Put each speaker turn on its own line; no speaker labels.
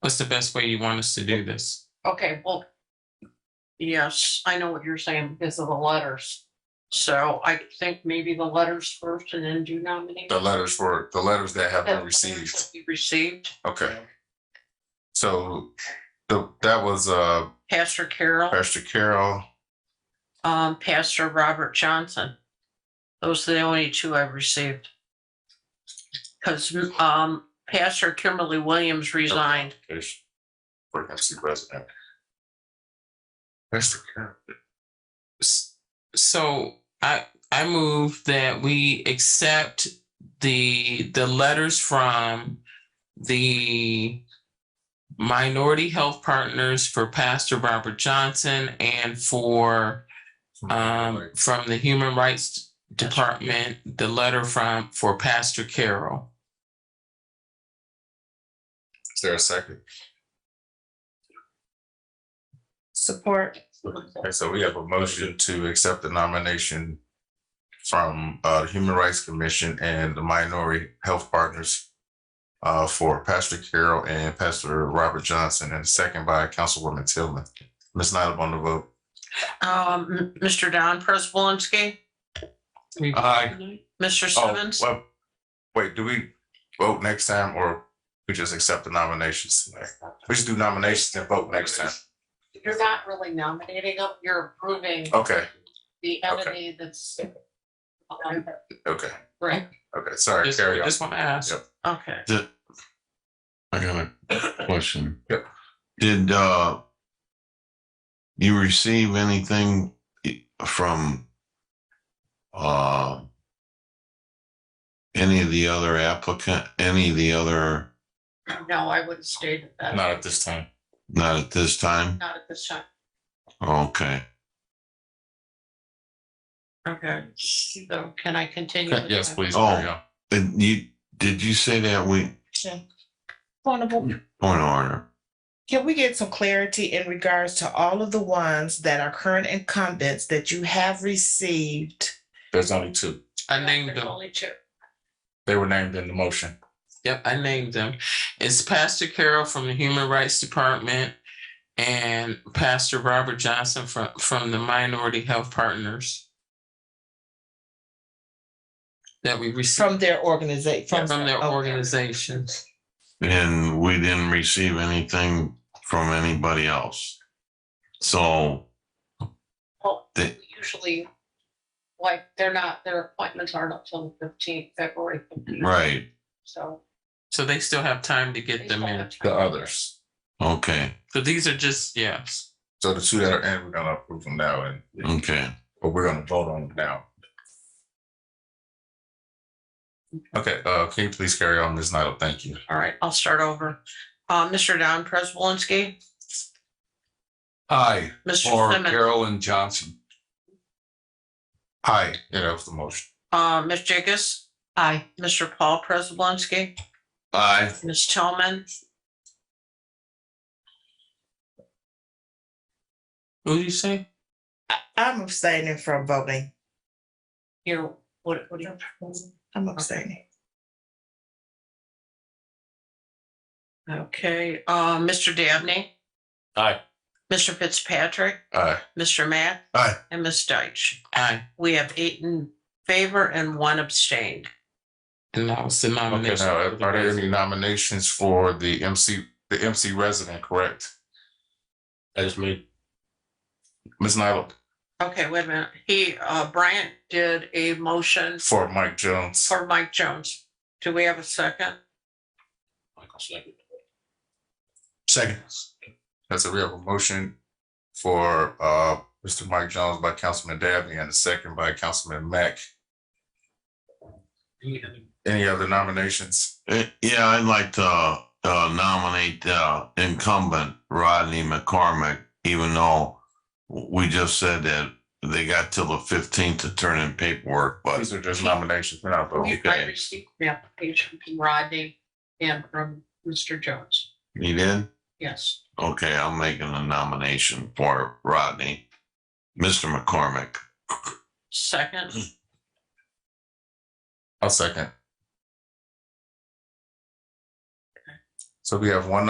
What's the best way you want us to do this?
Okay, well. Yes, I know what you're saying because of the letters. So I think maybe the letters first and then do nominate.
The letters were, the letters that have
The
been
letters
received.
that we Received
Okay. So the, that was, uh,
Pastor Carroll,
Pastor Carol.
um, Pastor Robert Johnson. Those are the only two I've received. Cause, um, Pastor Kimberly Williams resigned.
is For MC President. Pastor Carol.
S- So I, I move that we accept the, the letters from the Minority Health Partners for Pastor Robert Johnson and for um, from the Human Rights Department, the letter from, for Pastor Carroll.
Is there a second?
Support.
Okay, so we have a motion to accept the nomination from uh the Human Rights Commission and the Minority Health Partners uh for Pastor Carroll and Pastor Robert Johnson, and second by Councilwoman Tillman. Ms. Nyla on the vote.
Um, Mr. Don Prespolinski,
Aye.
Mr.
Oh,
Simmons.
well, wait, do we vote next time or we just accept the nominations? We just do nominations and vote next time.
You're not really nominating them, you're approving
Okay,
the
Okay.
entity that's.
okay,
Right,
okay, sorry,
Just,
carry on.
just want to ask.
Yep.
okay.
I got a question.
Yep.
Did, uh, you receive anything i- from, uh, any of the other applicant, any of the other,
No, I wouldn't state it that,
Not at this time.
not at this time?
not at this time.
Okay.
Okay. So can I continue? with
Yes,
my-
please,
Oh.
carry on.
And you, did you say that we,
Honorable,
point of order?
can we get some clarity in regards to all of the ones that are current incumbents that you have received?
There's only two.
I named
There's
them.
Only two.
They were named in the motion.
Yep, I named them. It's Pastor Carroll from the Human Rights Department and Pastor Robert Johnson from, from the Minority Health Partners. That we received
From their organization.
from their organizations.
And we didn't receive anything from anybody else. So,
Well,
They-
we usually, like, they're not, their appointments aren't until the fifteenth, February fifteenth,
right,
so.
So they still have time to get them in.
The others.
okay,
So these are just, yes.
So the two that are in, we're gonna approve them now and,
okay.
or we're gonna vote on them now. Okay, uh, can you please carry on, Ms. Nyla? Thank you.
All right, I'll start over. Uh, Mr. Don Prespolinski,
Aye.
Mr. Simmons,
Carolyn Johnson. Aye, yeah, that was the motion.
uh, Ms. Jacobs. Aye. Mr. Paul Prespolinski,
Aye.
Ms. Tillman,
What did you say?
I'm abstaining from voting.
you, what, what do you?
I'm abstaining.
Okay, uh, Mr. Dabney.
Aye.
Mr. Fitzpatrick,
Aye.
Mr. Matt.
Aye.
And Ms. Deitch.
Aye.
We have eight in favor and one abstained.
And that was the
Okay,
nomination.
now, uh, are there any nominations for the MC, the MC resident, correct? That is me. Ms. Nyla,
Okay, wait a minute. He, uh, Bryant did a motion
for Mike Jones.
for Mike Jones. Do we have a second?
Second. That's a, we have a motion for uh Mr. Mike Jones by Councilman Dabney and a second by Councilman Mack. Any other nominations?
Eh, Yeah, I'd like to uh, nominate uh, incumbent Rodney McCormick, even though we just said that they got till the fifteenth to turn in paperwork, but
These are just nominations, we're not voting.
We- I received the application from Rodney and from Mr. Jones.
he did.
Yes.
Okay, I'm making a nomination for Rodney, Mr. McCormick.
Second,
I'll second. So we have one